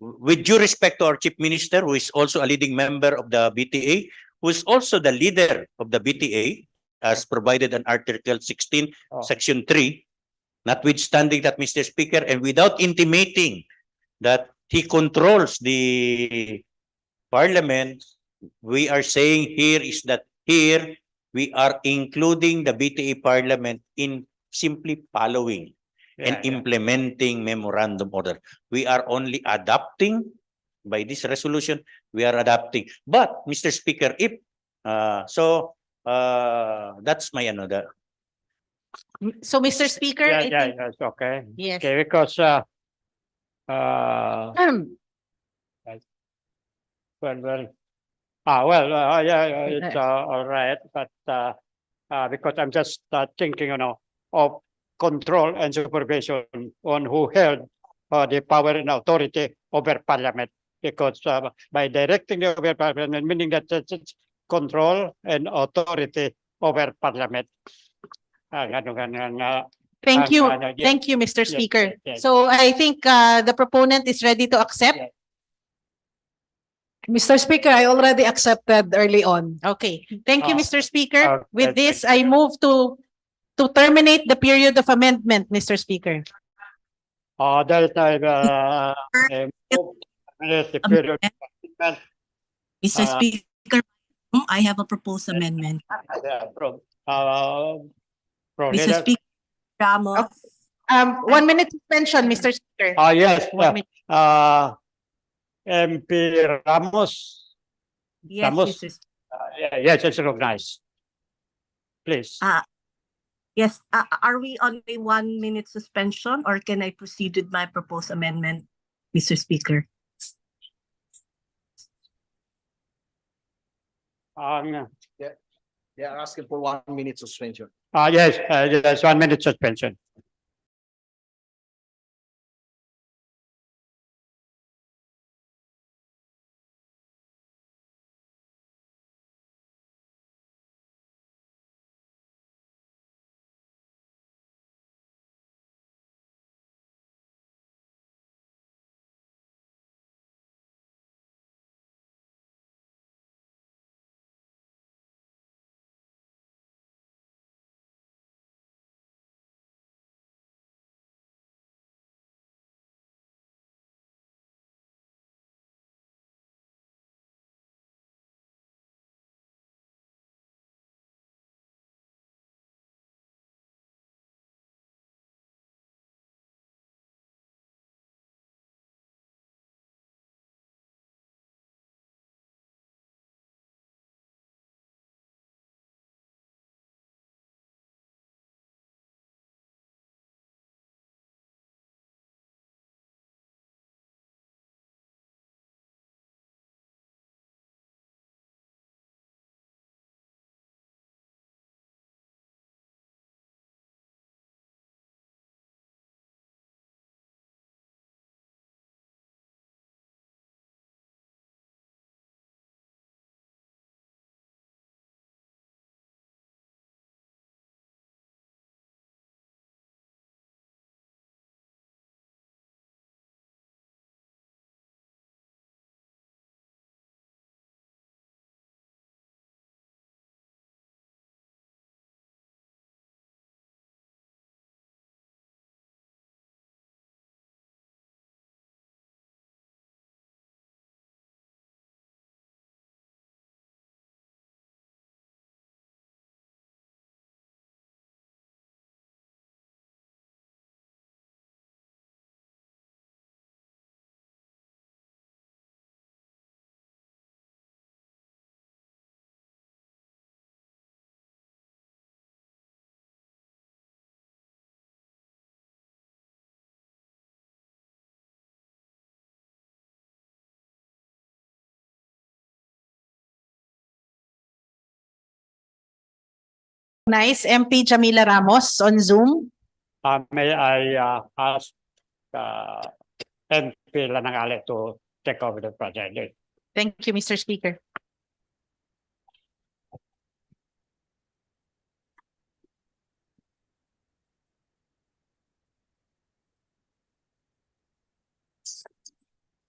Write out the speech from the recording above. with due respect to our chief minister, who is also a leading member of the BTA, who is also the leader of the BTA, as provided in Article sixteen, Oh. Section three, notwithstanding that, Mr. Speaker, and without intimating that he controls the parliament, we are saying here is that here, we are including the BTA parliament in simply following and implementing memorandum order. We are only adapting by this resolution, we are adapting. But, Mr. Speaker, if, uh, so, uh, that's my another. So, Mr. Speaker, Yeah, I yeah, think, yeah, it's okay. yes. Okay, because, uh, uh, Um, well, well, ah, well, uh, yeah, yeah, it's, Okay. uh, all right, but, uh, uh, because I'm just, uh, thinking, you know, of control and supervision on who held, uh, the power and authority over parliament. Because, uh, by directing the over parliament, meaning that it's, it's control and authority over parliament. Ah, ganun, ganun, ah, Thank you, ah, ah, yeah. thank you, Mr. yes, Speaker. yes, yes. So I think uh, the proponent is ready to accept. Mr. Speaker, I already accepted early on. Okay, thank you, Ah, Mr. Speaker. okay, With this, thank I you. move to to terminate the period of amendment, Mr. Speaker. Uh, there is no, uh, a move with the period of amendment, Mr. Uh, Speaker, I have a proposed amendment. uh, from, uh, from Mr. leader. Speaker Ramos, Um, one minute suspension, Mr. Speaker. Ah, yes, One yeah, minute. uh, MP Ramos, yes, Ramos. Mr. Sp- uh, yeah, yes, it's recognized. Please, Ah. yes, uh, are we on a one minute suspension or can I proceed with my proposed amendment, Mr. Speaker? um, They are asking for one minute suspension. ah, yes, uh, yes, one minute suspension. Nice, MP Jamila Ramos on Zoom. Uh, may I, uh, ask, uh, MP Lanangale to take over the project? Thank you, Mr. Speaker.